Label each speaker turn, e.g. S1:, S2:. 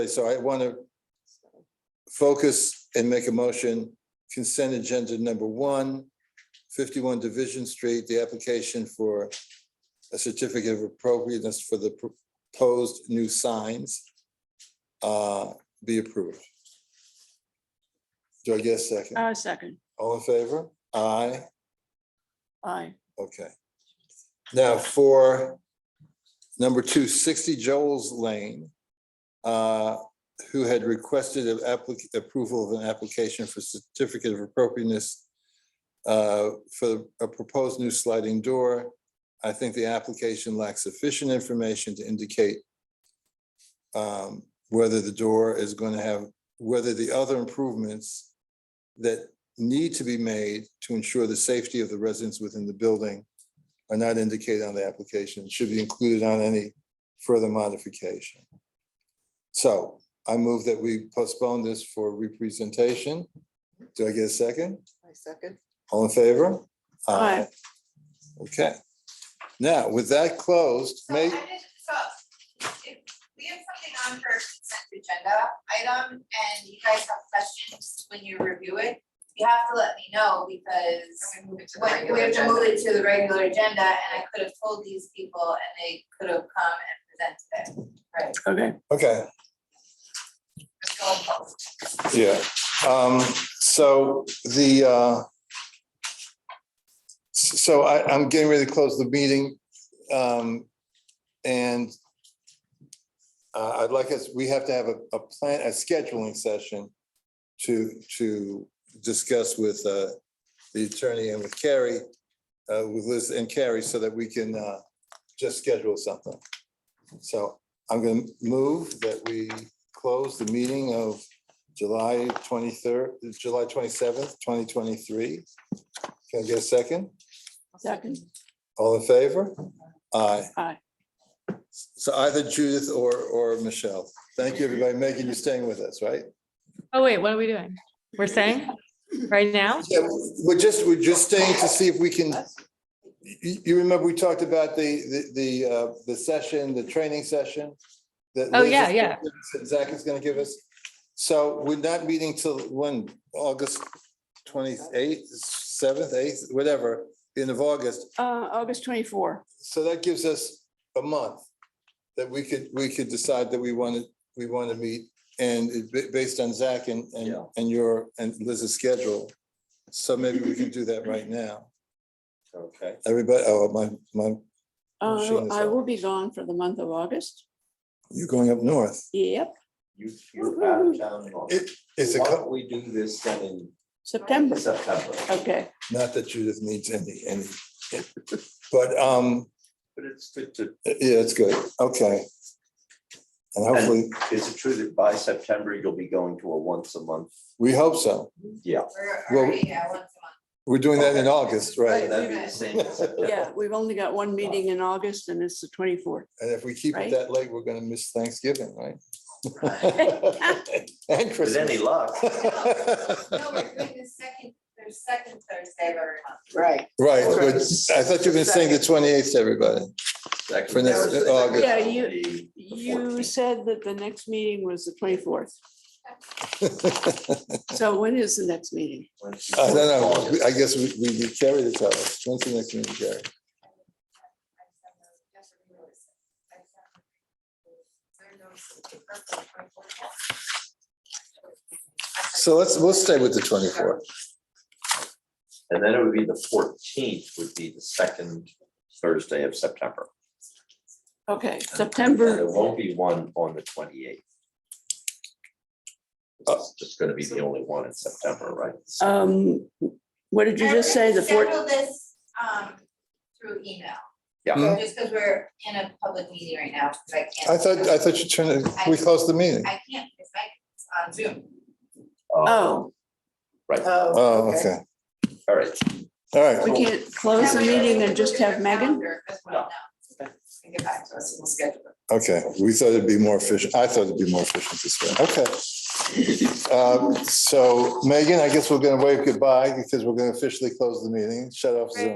S1: So I want to focus and make a motion, consent agenda number one, 51 Division Street, the application for a certificate of appropriateness for the proposed new signs uh, be approved. Do I get a second?
S2: Uh, second,
S1: All in favor? Aye.
S2: aye,
S1: Okay. Now for number two, 60 Joel's Lane, uh, who had requested an applic- approval of an application for certificate of appropriateness uh, for a proposed new sliding door. I think the application lacks sufficient information to indicate um, whether the door is going to have, whether the other improvements that need to be made to ensure the safety of the residents within the building are not indicated on the application, should be included on any further modification. So I move that we postpone this for representation. Do I get a second?
S3: I second.
S1: All in favor?
S2: Aye.
S1: Okay. Now, with that closed,
S4: So I
S1: make,
S4: did, so if we have something on for consent agenda item and you guys have questions when you review it, you have to let me know because
S3: move it to the
S4: when- we
S3: regular
S4: have to move
S3: agenda.
S4: it to the regular agenda and I could have told these people and they could have come and presented it. Right.
S2: okay,
S1: okay,
S4: So I'm opposed.
S1: yeah. Um, so the, uh, s- so I, I'm getting ready to close the meeting. Um, and uh, I'd like us, we have to have a, a plan, a scheduling session to, to discuss with, uh, the attorney and with Carrie, uh, with Liz and Carrie so that we can, uh, just schedule something. So I'm going to move that we close the meeting of July twenty-third, July twenty-seventh, twenty twenty-three. Can I get a second?
S2: second,
S1: All in favor? Aye.
S2: aye.
S1: So either Judith or, or Michelle. Thank you, everybody, making you staying with us, right?
S5: Oh, wait, what are we doing? We're staying right now?
S1: Yeah, we're just, we're just staying to see if we can, you, you remember we talked about the, the, the, uh, the session, the training session? that
S5: Oh,
S1: Liz is
S5: yeah,
S1: gonna
S5: yeah.
S1: give us, that Zach is gonna give us. So we're not meeting till when, August twenty-eighth, seventh, eighth, whatever, end of August.
S2: Uh, August twenty-four,
S1: So that gives us a month that we could, we could decide that we want to, we want to meet and it ba- based on Zach and, and,
S3: Yeah.
S1: and your, and Liz's schedule. So maybe we can do that right now.
S3: Okay.
S1: Everybody, oh, my, my,
S2: uh,
S1: Machine is
S2: I
S1: up.
S2: will be gone for the month of August,
S1: you're going up north.
S2: yep,
S3: You, you're out of town. in August.
S1: It, it's a,
S3: Why
S1: co-
S3: don't we do this then
S2: September,
S3: in September?
S2: okay,
S1: not that Judith needs any, any, but, um,
S3: But it's good to,
S1: yeah, it's good. Okay. And hopefully,
S3: is it true that by September you'll be going to a once a month?
S1: we hope so.
S3: Yeah.
S4: We're
S1: Well-
S4: already at once a
S1: We're doing that in August, right?
S3: That'd be the same. in September.
S2: yeah, we've only got one meeting in August and it's the twenty-fourth.
S1: And if we keep it
S2: Right.
S1: that late, we're gonna miss Thanksgiving, right? And
S3: With any
S1: Christmas.
S3: luck.
S4: month. No, we're doing the second, the second Thursday of every month. Right.
S1: Right, but I thought you were saying the twenty-eighth, everybody.
S3: Second
S1: For next-
S3: Thursday.
S1: August.
S2: Yeah, you-
S3: The-
S2: You
S3: 14th.
S2: said that the next meeting was the twenty-fourth, so when is the next meeting?
S1: I don't know, I guess we, we we carry this out. When's the next meeting, Carrie? So let's, we'll stay with the twenty-fourth.
S3: And then it would be the fourteenth would be the second Thursday of September.
S2: Okay,
S3: And There
S2: September,
S3: won't be one on the twenty eighth.
S1: Uh,
S3: It's just gonna be the only one in September, right?
S2: um, what did you just say, the fourth?
S4: Schedule this, um, through email,
S3: Yeah, Uh,
S1: Hmm?
S4: just because we're in a public meeting right now, because I can't.
S1: I thought, I thought you turned, it- we closed the meeting.
S4: I can't, because I, on Zoom.
S3: uh,
S2: Oh,
S3: right, all
S4: Oh.
S1: Oh, okay,
S3: right.
S1: all right.
S2: we can't close the meeting and just have Megan?
S4: Well, no. And Get back to us, and we'll schedule it.
S1: Okay, we thought it'd be more efficient. I thought it'd be more efficient this way. Uh, Okay. Um, So Megan, I guess we're gonna wave goodbye because we're gonna officially close the meeting, shut off Zoom.